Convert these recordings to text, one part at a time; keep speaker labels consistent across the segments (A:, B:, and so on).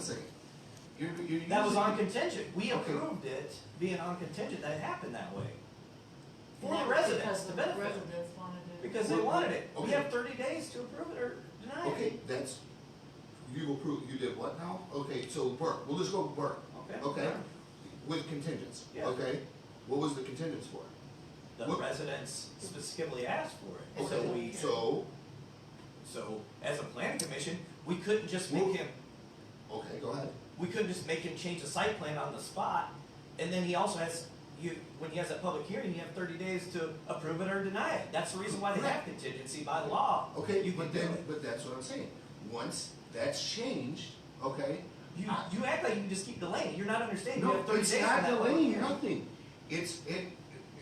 A: Second. You're, you're
B: That was
A: using-
B: on contingent,
A: Okay.
B: we approved it being on contingent, that happened that way. For
C: That
B: the
C: was
B: residents
C: because
B: to
C: the
B: benefit,
C: Residents wanted it.
B: because they
A: Well,
B: wanted it, we
A: okay.
B: have thirty days to approve it or deny it.
A: Okay, that's, you approved, you did what now? Okay, so Burke, we'll just go with Burke,
B: Okay.
A: okay? With contingents,
B: Yeah.
A: okay? What was the contingents for?
B: The
A: What-
B: residents specifically asked for it, so
A: Okay,
B: we,
A: so,
B: so as a planning commission, we couldn't just
A: Well-
B: make him,
A: okay, go ahead.
B: we couldn't just make him change the site plan on the spot. And then he also has, you, when he has that public hearing, you have thirty days to approve it or deny it, that's the reason why they have contingency by law.
A: Okay,
B: You can
A: but
B: do
A: then,
B: it.
A: but that's what I'm saying. Once that's changed, okay?
B: You,
A: I-
B: you act like you just keep delaying. You're not understanding. you
A: No,
B: have 30
A: it's
B: days
A: not
B: for that
A: delaying
B: public hearing.
A: nothing. It's, it,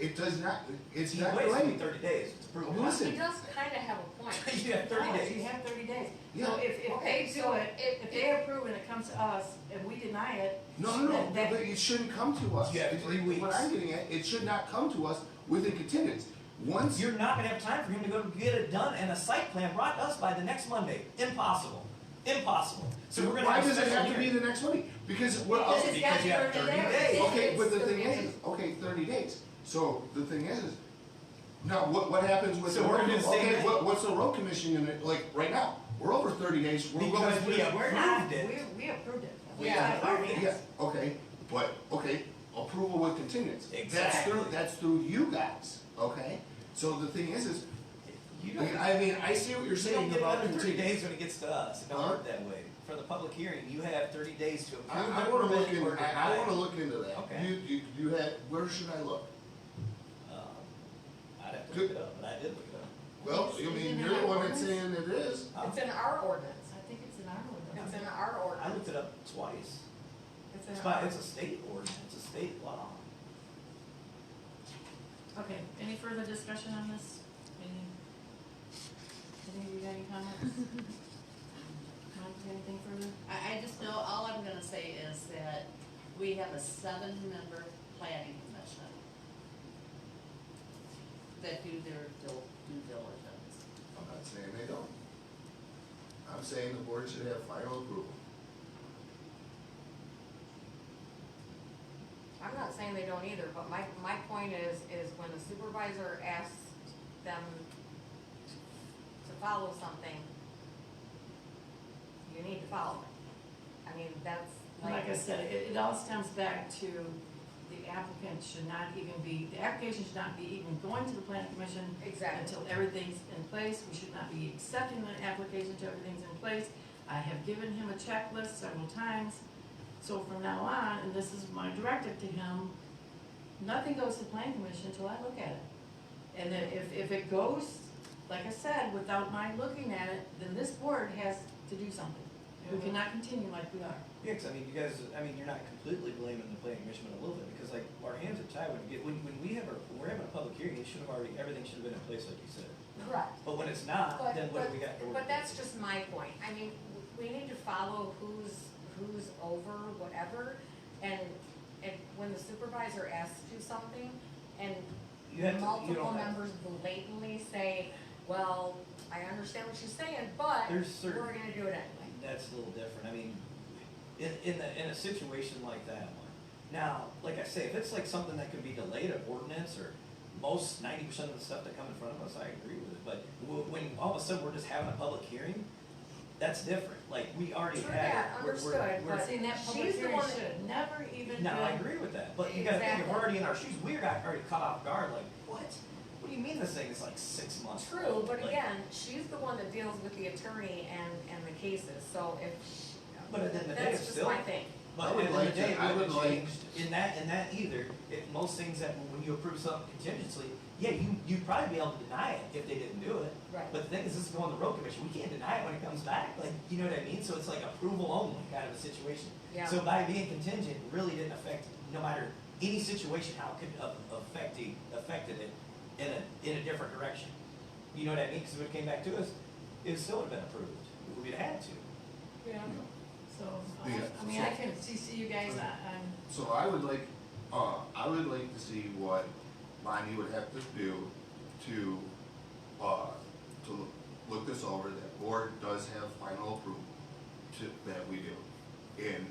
A: it does not, it's
B: He
A: not
B: waits only
A: delaying.
B: 30 days to prove it.
A: Listen. Oh,
D: He does kind of have a point.
B: you have 30
C: No, You
B: days.
C: have thirty days.
A: Yeah.
C: So if, if
D: Okay,
C: they
D: so
C: do it,
D: if-
C: if they approve and it comes to us and we deny it.
A: No, no, no,
C: then- then-
A: but it shouldn't come to us.
B: You have
A: It-
B: three
A: What
B: weeks.
A: I'm getting at, it should not come to us with a contingent. Once,
B: You're not going to have time for him to go get it done and a site plan brought to us by the next Monday. Impossible. Impossible. So we're going to
A: why
B: have a
A: does it
B: special
A: have to be
B: hearing.
A: the next week? Because what
C: Because
A: else?
C: it's
B: because
C: got
B: you have 30 days.
A: Okay, but the
C: It's
A: thing
C: 30
A: is, okay, thirty days. So the thing is, now what, what happens with the
B: So we're
A: road?
B: gonna say
A: Okay,
B: that-
A: what, what's the road commission gonna, like, right now? We're over thirty days. We're going.
B: Because we have-
C: We're not,
B: approved it.
C: we, we approved it. We
D: Yeah.
C: got our
A: Yeah,
C: hands.
A: okay, but, okay, approval with contingents. That's
B: Exactly.
A: through, that's through you guys, okay? So the thing is, is,
B: You don't,
A: I mean, I see what you're
B: you don't
A: saying
B: get
A: about
B: another 30
A: contingents.
B: days when it gets to us. It don't
A: Huh?
B: work that way. For the public hearing, you have 30 days to approve
A: I, I
B: it,
A: wanna look
B: permit, or
A: into, I,
B: deny
A: I
B: it.
A: wanna look into that.
B: Okay.
A: You, you, you had, where should I look?
B: Um, I'd have to
A: Good.
B: look it up, but I did look it up.
A: Well, I mean,
C: Isn't it
A: you're the one that's
C: ordinance?
A: saying it is.
B: Huh?
D: It's in our ordinance.
C: I think it's in our
D: It's
C: ordinance.
D: in our
B: I
D: ordinance.
B: looked it up twice.
D: It's
B: It's
D: in
B: by,
D: our.
B: it's a state ordinance, it's a state law.
C: Okay, any further discussion on this? Any, any, you got any comments? Mike, you got anything further?
E: I, I just know, all I'm gonna say is that we have a seven-member planning commission that do their dil- due diligence.
A: I'm not saying they don't. I'm saying the board should have final approval.
D: I'm not saying they don't either, but my, my point is, is when the supervisor asks them to follow something, you need to follow it. I mean, that's like.
C: Like I said, it, it all stems back to the applicant should not even be, the application should not be even going to the planning commission
D: Exactly.
C: until everything's in place, we should not be accepting an application until everything's in place. I have given him a checklist several times, so from now on, and this is my directive to him, nothing goes to the planning commission until I look at it. And then if, if it goes, like I said, without my looking at it, then this board has to do something. We
D: Mhm.
C: cannot continue like we are.
B: Yeah, 'cause I mean, you guys, I mean, you're not completely blaming the planning commission but a little bit, because like, our hands are tied when you get, when, when we have our, when we're having a public hearing, it should have already, everything should have been in place, like you said.
D: Correct.
B: But when it's not,
D: But-
B: then what do we
D: but-
B: got? to work
D: But
B: with?
D: that's just my point, I mean, w- we need to follow who's, who's over whatever, and, and when the supervisor asks you something, and
B: You have to- you
D: multiple
B: don't have-
D: members blatantly say, well, I understand what she's saying, but
B: There's certain-
D: we're gonna do it anyway.
B: That's a little different, I mean, in, in the, in a situation like that one. Now, like I say, if it's like something that can be delayed, an ordinance, or most ninety percent of the stuff that come in front of us, I agree with it, but w- when all of a sudden we're just having a public hearing, that's different, like, we already
D: True
B: had. it.
D: that,
B: We're- we're-
D: understood,
B: we're-
D: but-
C: Seeing that public
D: She's the
C: hearing
D: one
C: should never even.
B: No, I
C: been-
B: agree with that, but you gotta think, if we're already in our shoes, we got already caught off guard, like, what? What do you mean this thing is like six months
D: True,
B: old?
D: but
B: Like,
D: again, she's the one that deals with the attorney and, and the cases, so if, she-
B: But at the end of the day,
D: that's
B: it's
D: just
B: still-
D: my thing.
A: I
B: But
A: would
B: at the end
A: like
B: of the day,
A: to- I
B: it
A: would
B: wouldn't
A: like-
B: change in that, in that either, if most things that, when you approve something contingently, yeah, you, you'd probably be able to deny it if they didn't do it.
D: Right.
B: But the thing is, this is going to road commission, we can't deny it when it comes back, like, you know what I mean? So it's like approval only kind of a situation.
D: Yeah.
B: So by being contingent really didn't affect, no matter any situation, how it could a- affect the, affected it in a, in a different direction. You know what I mean? Because if it came back to us, it still would have been approved, we'd have had to.
A: you
C: Yeah,
A: know.
C: so, I,
A: Yeah,
C: I mean, I can CC you guys on, on
A: So I would like, uh, I would like to see what Bonnie would have to do to, uh, to loo- look this over, that board does have final approval to, that we do. and